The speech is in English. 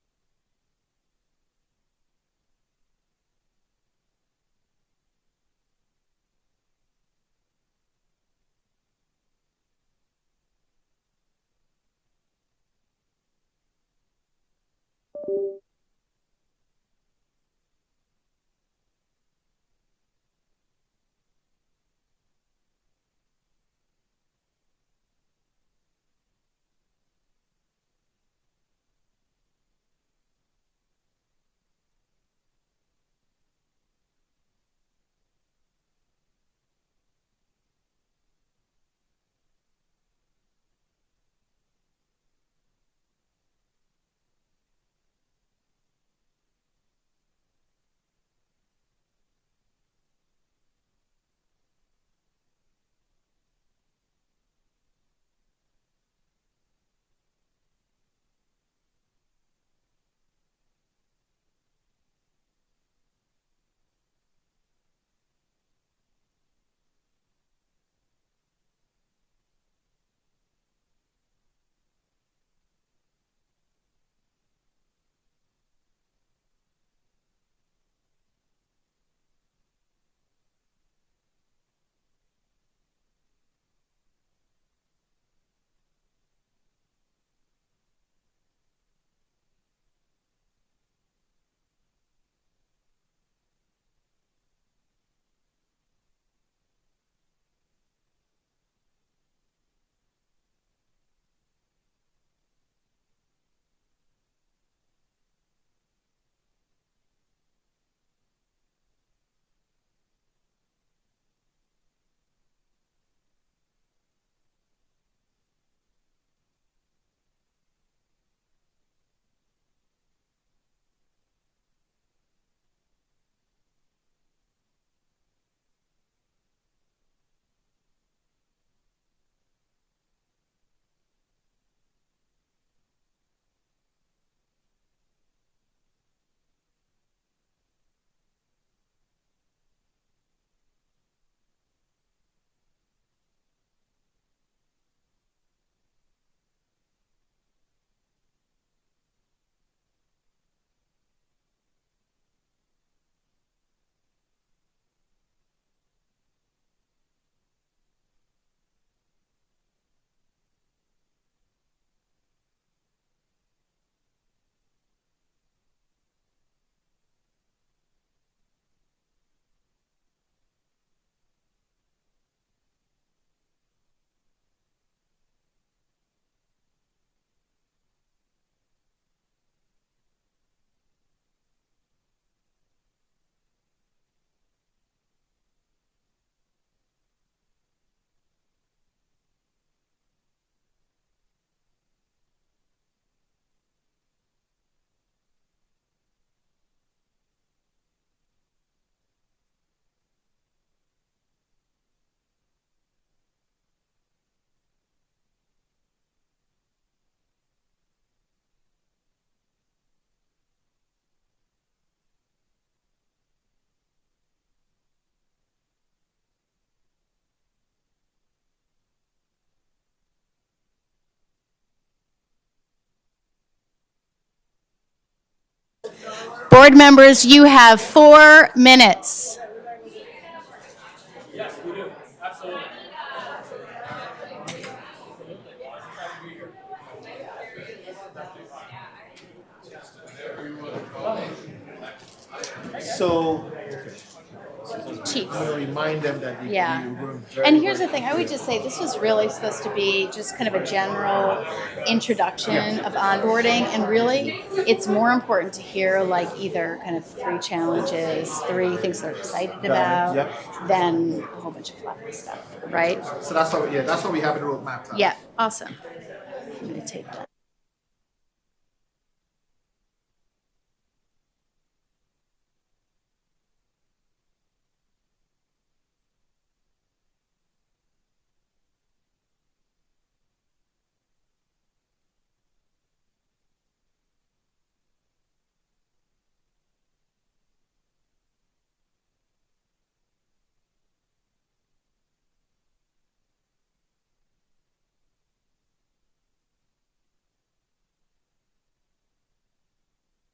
Board members, you have four minutes. So Chiefs. I'm gonna remind them that we we Yeah. were very. And here's the very- thing, I would just say, this was really supposed to be just kind of a general introduction of onboarding, and really, it's more important to hear like either kind of three challenges, three things they're excited Got it, about, than a whole bunch of fluffy stuff, right? So that's what, yeah, that's what we have in roadmap. now. Yeah, awesome. I'm gonna take that.